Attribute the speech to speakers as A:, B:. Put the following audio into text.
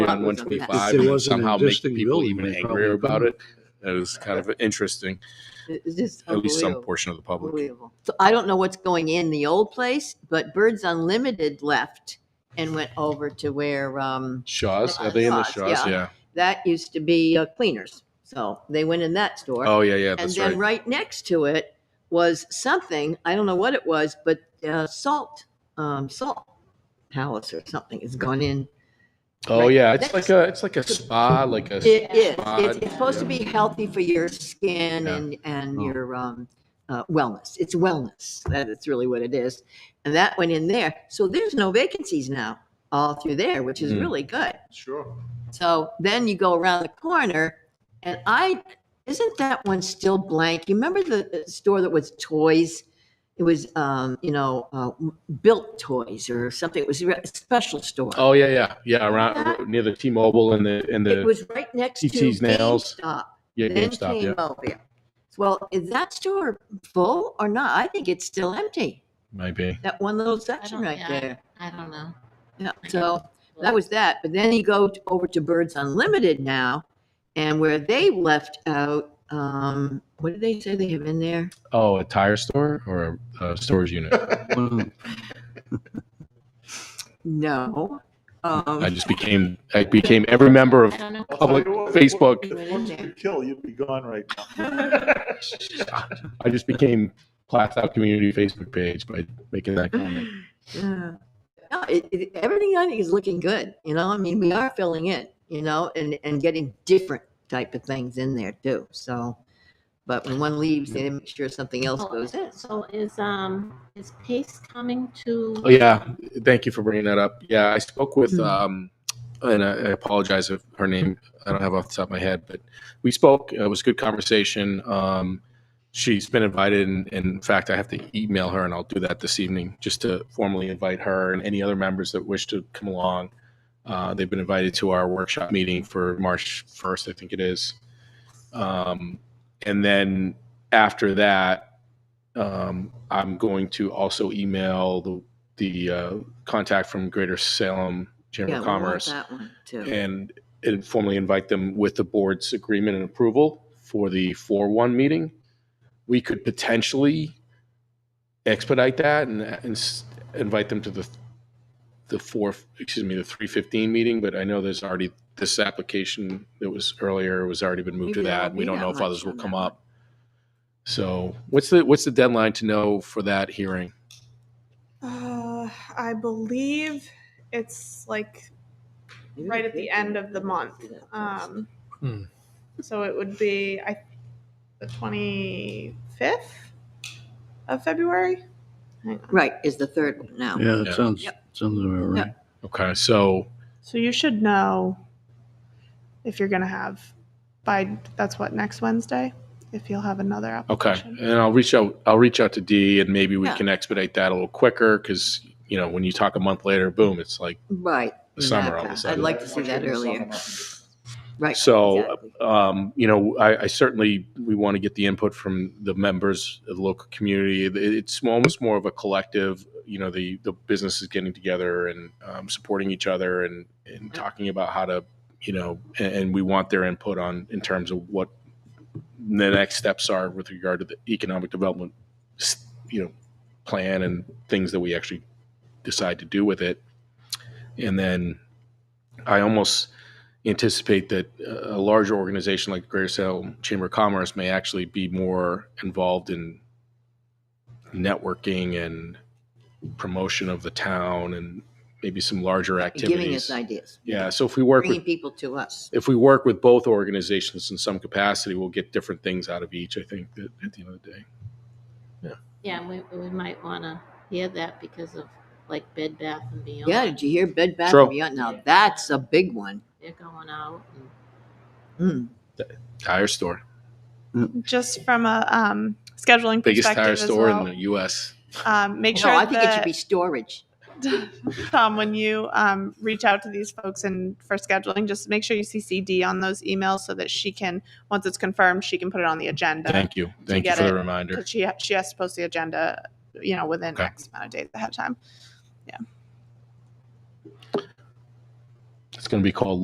A: on one twenty five
B: It
A: and
B: wasn't an
A: somehow make
B: existing
A: people
B: building,
A: even
B: they
A: angrier
B: probably
A: about it. That is kind of interesting,
C: It's just
A: at least some
C: unbelievable.
A: portion of the public.
C: Unbelievable. So I don't know what's going in the old place, but Birds Unlimited left and went over to where, um,
A: Shaw's, are they in the
C: Shaw's,
A: Shaw's? Yeah.
C: that used to be uh, Cleaners. So they went in that store.
A: Oh, yeah, yeah,
C: And
A: that's
C: then
A: right.
C: right next to it was something, I don't know what it was, but uh, Salt, um, Salt Palace or something has gone in.
A: Oh,
C: right
A: yeah, it's
C: next
A: like a, it's like a spa, like a,
C: It is. It's,
A: Odd,
C: it's supposed to
A: yeah.
C: be healthy for your skin
A: Yeah.
C: and, and
B: Oh.
C: your, um, uh, wellness. It's wellness. That is really what it is. And that went in there. So there's no vacancies now all through there, which is
A: Mm.
C: really good.
B: Sure.
C: So then you go around the corner and I, isn't that one still blank? You remember the uh, store that was toys? It was, um, you know, uh, built toys or something. It was a re- special store.
A: oh, yeah, yeah, yeah,
C: Yeah.
A: around, near the T-Mobile and the, and
C: It
A: the,
C: was right next to
A: TT's Nails.
C: GameStop.
A: yeah,
C: Then
A: GameStop, yeah,
C: came Mobile. Well, is that store full or not? I think it's still empty.
A: might be.
C: That one little section
D: don't-
C: right
D: yeah.
C: there.
D: I don't know.
C: Yeah, so that was that. But then you go t- over to Birds Unlimited now, and where they left out, um, what did they say they have in there?
A: Oh, a tire store or a uh, storage unit?
C: No.
A: I
C: Um,
A: just became, I became every member of
D: I don't know.
A: public Facebook.
B: Once you kill, you'd be gone right
A: I just became Plastow Community Facebook page by making
C: Mm.
A: that comment.
C: yeah. No, it, it, everything I think is looking good, you know, I mean, we are filling in, you know, and, and getting different type of things in there too, so. But when one leaves, they make sure something else goes in.
D: So is, um, is Pace coming
A: Oh,
D: to?
A: yeah. Thank you for bringing that up. Yeah, I spoke with,
C: Mhm.
A: um, and I I apologize if her name, I don't have off the top of my head, but we spoke. It was a good conversation. Um, she's been invited, and, and in fact, I have to email her, and I'll do that this evening just to formally invite her and any other members that wish to come along. Uh, they've been invited to our workshop meeting for March 1st, I think it is. Um, and then after that, um, I'm going to also email the the uh, contact from Greater Salem Chamber
C: Yeah,
A: of
C: we want
A: Commerce
C: That one too.
A: and and formally invite them with the board's agreement and approval for the four one meeting. We could potentially expedite that and, and s- invite them to the the four, excuse me, the three fifteen meeting, but I know there's already, this application that was earlier was already been moved to
C: Maybe there
A: that.
C: won't
A: We
C: be
A: don't
C: that
A: know if
C: much
A: others will
C: on
A: come
C: that one.
A: up. So what's the, what's the deadline to know for that hearing?
E: Uh, I believe it's like right at the end of the month. Um,
B: Hmm.
E: So it would be I, the 25th of February. Hang on.
C: Right, is the third one now.
B: Yeah,
A: Yeah.
B: it sounds, sounds about right.
A: Okay, so
E: So you should know if you're going to have by that's what next Wednesday if you'll have another
A: Okay,
E: application.
A: and I'll reach out, I'll reach out to Dee and maybe we
C: Yeah.
A: can expedite that a little quicker because, you know, when you talk a month later, boom, it's like
C: Right.
A: the summer all of a
C: exactly. I'd
A: sudden.
C: like to see that earlier. Right.
A: So,
C: exactly.
A: um, you know, I, I certainly, we want to get the input from the members of the local community. It- It's almost more of a collective, you know, the, the businesses getting together and um, supporting each other and, and talking about how to, you know, and, and we want their input on, in terms of what the next steps are with regard to the economic development, s- you know, plan and things that we actually decide to do with it. And then I almost, anticipate that uh, a larger organization like Greater Salem Chamber of Commerce may actually be more involved in networking and promotion of the town and maybe some larger
C: Giving
A: activities.
C: us ideas.
A: Yeah, so if we work with
C: Bringing people to us.
A: if we work with both organizations in some capacity, we'll get different things out of each, I think, that at the end of the day.
D: Yeah, and we, we might want to hear that because of like Bed Bath and Beyond.
C: Yeah, did you hear Bed Bath
A: True.
C: and Beyond? Now, that's a big one.
D: They're going out and.
C: Mm.
A: Tire store,
E: Just from a um, scheduling
A: biggest
E: perspective
A: tire
E: as
A: store
E: well,
A: in the US.
E: um, make
C: No,
E: sure
C: I think it
E: that-
C: should be storage.
E: Tom, when you um, reach out to these folks and for scheduling, just make sure you CCD on those emails so that she can, once it's confirmed, she can put it on the agenda.
A: Thank you. Thank you
E: get
A: for the
E: it.
A: reminder.
E: Because she she has to post the agenda, you know, within
A: Okay.
E: X amount of days ahead of time.
A: It's going to be called